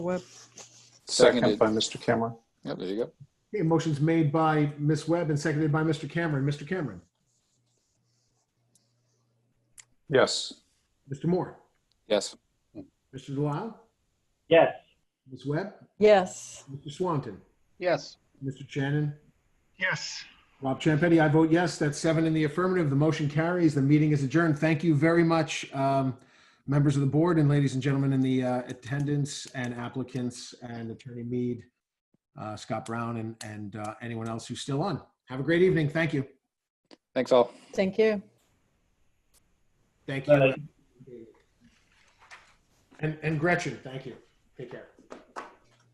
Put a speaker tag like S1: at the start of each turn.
S1: Webb.
S2: Seconded.
S3: Second by Mr. Cameron.
S2: Yep, there you go.
S4: Okay, motion's made by Ms. Webb and seconded by Mr. Cameron. Mr. Cameron,
S3: Yes.
S4: Mr. Moore,
S2: Yes.
S4: Mr. Delisle,
S5: yes,
S4: Ms. Webb,
S1: Yes.
S4: Mr. Swanton,
S6: yes,
S4: Mr. Shannon,
S7: yes.
S4: Rob Champetti, I vote yes. That's seven in the affirmative. The motion carries. The meeting is adjourned. Thank you very much, um, members of the board and ladies and gentlemen in the uh, attendance and applicants and Attorney Mead, uh, Scott Brown, and, and uh, anyone else who's still on. Have a great evening. Thank you.
S2: Thanks all.
S1: Thank you.
S4: Thank
S5: Bye.
S4: you. And, and Gretchen, thank you. Take care.